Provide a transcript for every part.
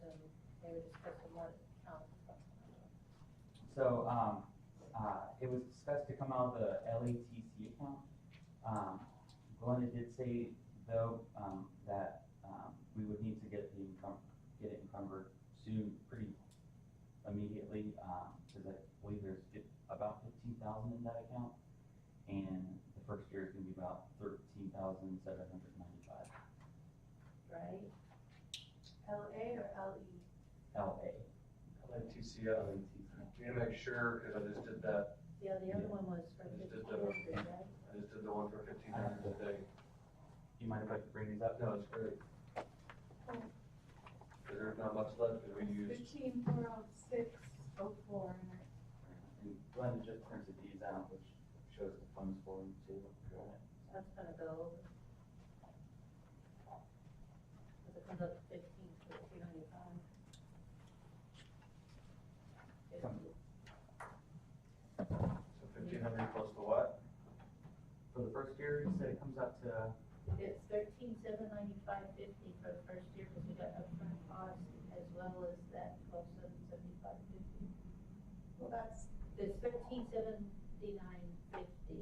they were just put um, the one out. So, um, uh, it was discussed to come out of the LATC account. Um, Glenda did say though, um, that, um, we would need to get the encum, get it encumbered soon, pretty immediately, um, cause I believe there's fif- about fifteen thousand in that account. And the first year is gonna be about thirteen thousand seven hundred ninety-five Right? LA or E? LE? LA. LATCF. uh, We need to make sure, because I just did that, Yeah, the other one was for I just fifteen did the- hundred, right? I just did the one for fifteen hundred today. Do you mind if I bring these up? No, it's great. Because there's not much left, because we used, Fifteen four oh six oh four, and I- And Glenda just printed these out, which shows the funds for you too. That's gonna go over. Cause it comes up to fifteen, fifteen ninety-five. so fifteen hundred plus the what? For the first year, you said it comes out to, It's thirteen seven ninety-five fifty for the first year, cause we got upfront costs as well as that twelve seven seventy-five fifty. well, that's, There's thirteen seventy-nine fifty,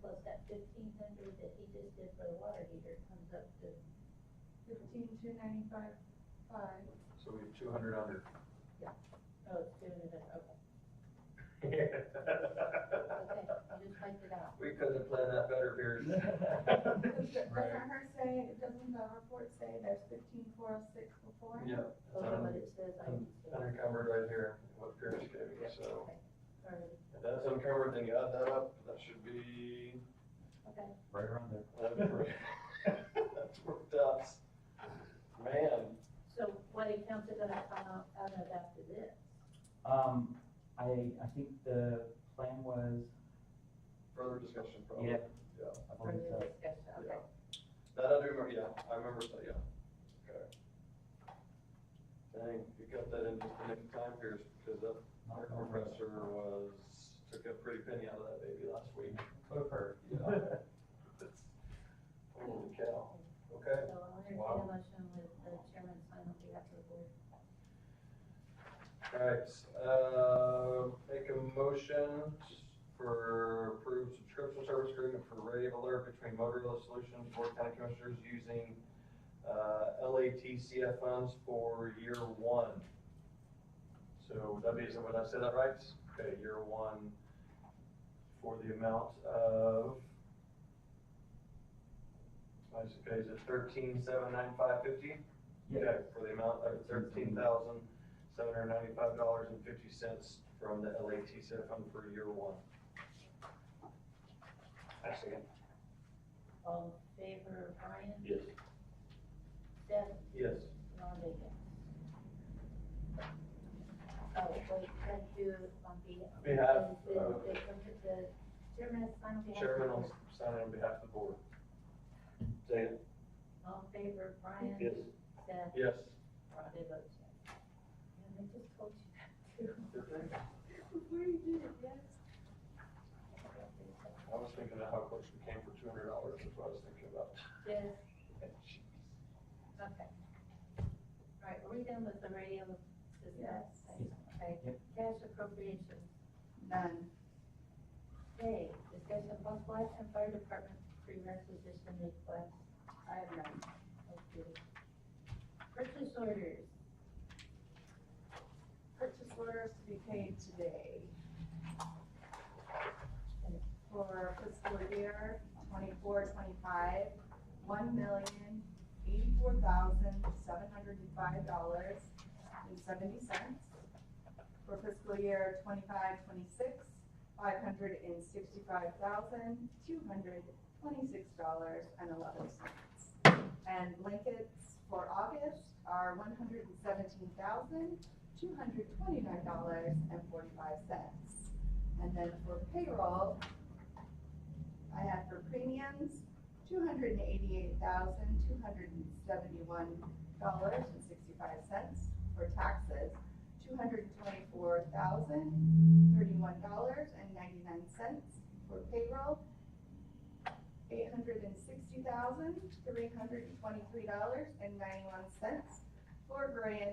plus that fifteen hundred that he just did for the water heater comes up to, fifteen two ninety-five five. So we have two hundred under. oh, it's doing it, okay, okay, you just typed it out. We could have planned that better, Pierce. Doesn't Right. her say, doesn't the report say there's fifteen four oh six oh four? Yeah, it's Those are un- what it says, I un- can see. uncovered right here, what Pierce gave me, so. Alright, If that's uncovered, then you add that up, that should be Okay, right around there. That's worked out. Man, so what accounts are gonna come out, out of after this? Um, I, I think the plan was, further discussion probably. yeah, Yeah. I For believe the so. discussion, okay. That I do remember, yeah, I remember that, yeah. Okay. Dang, you got that in just the nick of time, Pierce, because that air compressor was, took a pretty penny out of that baby last week. Could occur. Yeah. That's- Holy cow. Okay. So I'll entertain Wow. a motion with the chairman sign on behalf of the board. Alright, uh, make a motion for approved subscription service agreement for Rave Alert between Motorola Solutions, Board of County Commissioners using, uh, LATCF funds for year one. So would that be, would I say that right? Okay, year one for the amount of, I suppose it's thirteen seven nine five fifty? Yeah, Okay, for the amount of thirteen thousand, seven hundred ninety-five dollars and fifty cents from the LATCF fund for year one. I second. All in favor of Brian, Yes. Seth, Yes. Ron Bacon. Oh, wait, can I do it on behalf? On behalf The, of- the, the chairman has signed on behalf. of- Chairman will sign on behalf of the board. Second. All in favor of Brian, Yes. Seth, Yes. Ron Bacon. And I just told you that too. Before you did it, yes. I was thinking of how close we came for two hundred dollars, that's what I was thinking about. Yes, okay. All right, are we done with the radio? business? Yes. Okay, Yep. cash appropriations. None. Okay, discussion possible action, fire department pre-requisition request. I have none. Okay. Purchase orders, Purchase orders to be paid today for fiscal year twenty-four, twenty-five, one million, eighty-four thousand, seven hundred and five dollars and seventy cents. For fiscal year twenty-five, twenty-six, five hundred and sixty-five thousand, two hundred, twenty-six dollars and eleven cents. And blankets for August are one hundred and seventeen thousand, two hundred twenty-nine dollars and forty-five cents. And then for payroll, I have for premiums, two hundred and eighty-eight thousand, two hundred and seventy-one dollars and sixty-five cents. For taxes, two hundred and twenty-four thousand, thirty-one dollars and ninety-nine cents. For payroll, eight hundred and sixty thousand, three hundred and twenty-three dollars and ninety-one cents. For grand